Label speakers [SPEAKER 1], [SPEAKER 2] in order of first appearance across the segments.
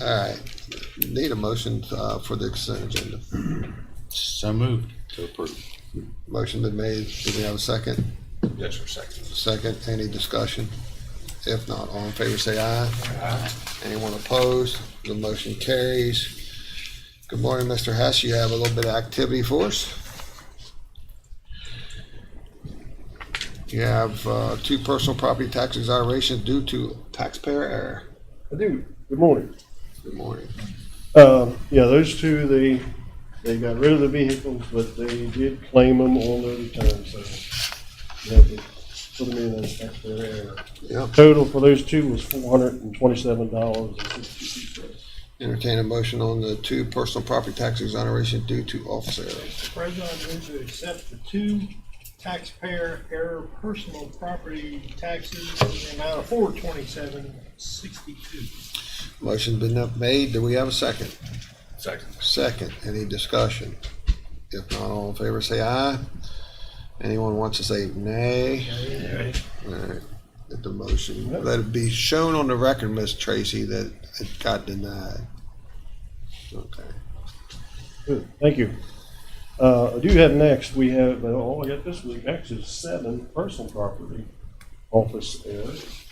[SPEAKER 1] All right, need a motion uh, for the consent agenda.
[SPEAKER 2] So moved. To approve.
[SPEAKER 1] Motion been made, do we have a second?
[SPEAKER 3] Yes, sir, second.
[SPEAKER 1] Second, any discussion? If not, all in favor say aye. Anyone opposed? The motion carries. Good morning, Mr. Hess, you have a little bit of activity for us? You have uh, two personal property tax exonerations due to taxpayer error.
[SPEAKER 4] I do. Good morning.
[SPEAKER 1] Good morning.
[SPEAKER 4] Um, yeah, those two, they, they got rid of the vehicles, but they did claim them on their return, so. you have to Put them in as taxpayer error.
[SPEAKER 1] Yep,
[SPEAKER 4] Total for those two was four hundred and twenty-seven dollars and sixty-two cents.
[SPEAKER 1] entertain a motion on the two personal property tax exoneration due to officer error.
[SPEAKER 5] Mr. President, I move to accept the two taxpayer error personal property taxes in the amount of four twenty-seven sixty-two.
[SPEAKER 1] Motion's been made, do we have a second?
[SPEAKER 3] Second.
[SPEAKER 1] Second, any discussion? If not, all in favor, say aye. Anyone wants to say nay? All right, Let the motion, let it be shown on the record, Miss Tracy, that it got denied. Okay.
[SPEAKER 4] Good, thank you. Uh, I do have next, we have, well, all I got this week, actually is seven personal property office errors.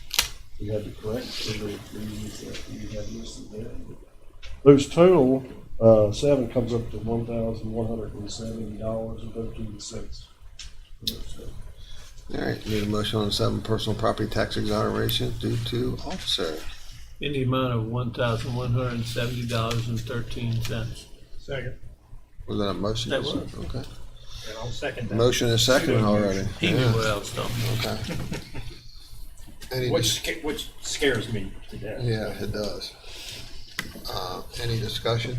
[SPEAKER 4] We had to correct some of the things that we had listed there. Those total, uh, seven comes up to one thousand one hundred and seventy dollars and thirteen cents.
[SPEAKER 1] All right, need a motion on seven personal property tax exoneration due to officer.
[SPEAKER 6] in the amount of one thousand one hundred and seventy dollars and thirteen cents.
[SPEAKER 5] Second,
[SPEAKER 1] Was that a motion?
[SPEAKER 6] That was.
[SPEAKER 1] Okay.
[SPEAKER 5] and I'll second that.
[SPEAKER 1] Motion is second already.
[SPEAKER 6] He knew what I was talking about.
[SPEAKER 1] Okay. Any
[SPEAKER 3] Which,
[SPEAKER 1] dis-
[SPEAKER 3] sca- which scares me to death.
[SPEAKER 1] Yeah, it does. Uh, Any discussion?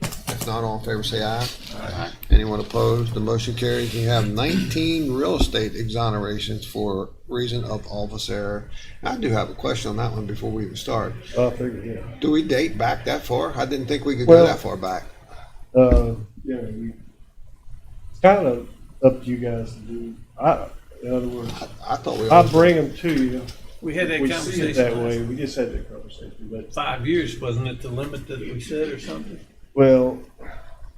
[SPEAKER 1] If not, all in favor, say aye. Aye. Anyone opposed? The motion carries. You have nineteen real estate exonerations for reason of office error. I do have a question on that one before we even start.
[SPEAKER 4] Uh, I figured, yeah,
[SPEAKER 1] Do we date back that far? I didn't think we could
[SPEAKER 4] Well-
[SPEAKER 1] go that far back.
[SPEAKER 4] uh, yeah, we, it's kind of up to you guys to do, I, in other words,
[SPEAKER 1] I- I thought we.
[SPEAKER 4] I
[SPEAKER 1] always-
[SPEAKER 4] bring them to you.
[SPEAKER 6] We had that
[SPEAKER 4] We see it that way,
[SPEAKER 6] conversation
[SPEAKER 4] we just had that conversation, but,
[SPEAKER 6] five years, wasn't it the limit that we said or something?
[SPEAKER 4] well,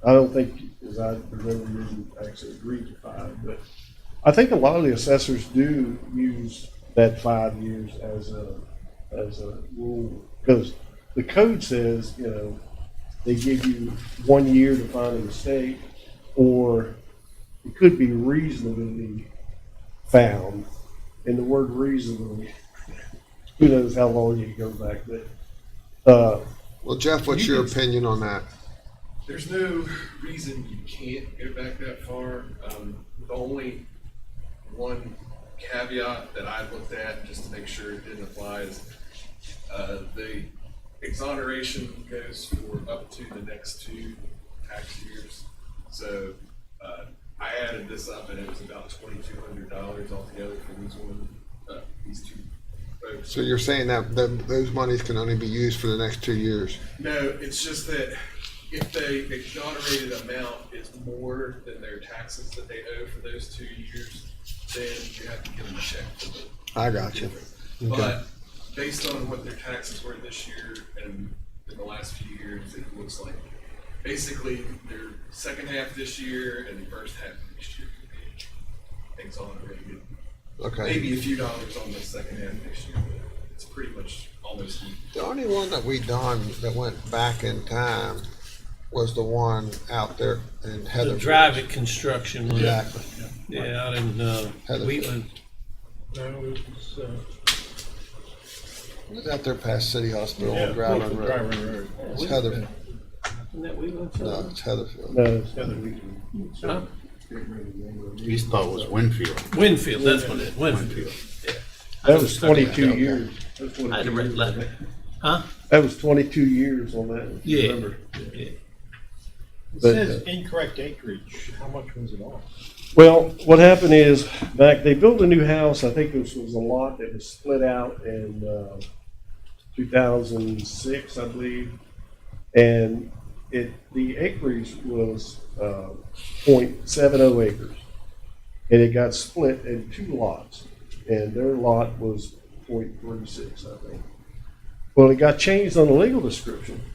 [SPEAKER 4] I don't think, as I remember, you actually agreed to five, but I think a lot of the assessors do use that five years as a, as a rule, because the code says, you know, they give you one year to find a mistake, or it could be reasonably found, and the word reasonably, who knows how long you go back, but, uh,
[SPEAKER 1] Well, Jeff, what's your opinion on that?
[SPEAKER 7] There's no reason you can't go back that far. Um, the only one caveat that I looked at, just to make sure it didn't apply, is, uh, the exoneration goes for up to the next two tax years. So, uh, I added this up and it was about twenty-two hundred dollars altogether for these one, uh, these two folks.
[SPEAKER 1] So you're saying that th- those monies can only be used for the next two years?
[SPEAKER 7] No, it's just that if the exonerated amount is more than their taxes that they owe for those two years, then you have to give them a check for the
[SPEAKER 1] I got you. Okay.
[SPEAKER 7] but based on what their taxes were this year and in the last few years, it looks like basically their second half this year and the first half of next year could be exonerated.
[SPEAKER 1] Okay.
[SPEAKER 7] Maybe a few dollars on the second half next year, but it's pretty much almost equal.
[SPEAKER 1] The only one that we done that went back in time was the one out there in Heather.
[SPEAKER 6] The drive it construction one.
[SPEAKER 1] Exactly.
[SPEAKER 6] Yeah, out in, uh,
[SPEAKER 1] Heatherfield.
[SPEAKER 6] Wheatland.
[SPEAKER 5] No, it was, uh,
[SPEAKER 1] It was out there past City Hospital
[SPEAKER 5] yeah,
[SPEAKER 1] on Graveling
[SPEAKER 5] Brooklyn
[SPEAKER 1] Road.
[SPEAKER 5] Drive Road.
[SPEAKER 1] It's Heather,
[SPEAKER 6] Isn't that Wheatland?
[SPEAKER 1] no, it's Heatherfield.
[SPEAKER 4] No,
[SPEAKER 6] Huh?
[SPEAKER 2] His thought was Winfield.
[SPEAKER 6] Winfield, that's what it is, Winfield.
[SPEAKER 4] that was twenty-two years.
[SPEAKER 6] I had a red letter.
[SPEAKER 4] That was twenty-two years on that. if you
[SPEAKER 6] Yeah.
[SPEAKER 4] remember.
[SPEAKER 5] It
[SPEAKER 4] But,
[SPEAKER 5] says
[SPEAKER 4] uh,
[SPEAKER 5] incorrect acreage, how much was it on?
[SPEAKER 4] Well, what happened is back, they built a new house. I think this was a lot that was split out in uh, 2006, I believe. And it, the acreage was uh, .70 acres. And it got split in two lots. And their lot was .36, I think. Well, it got changed on the legal description.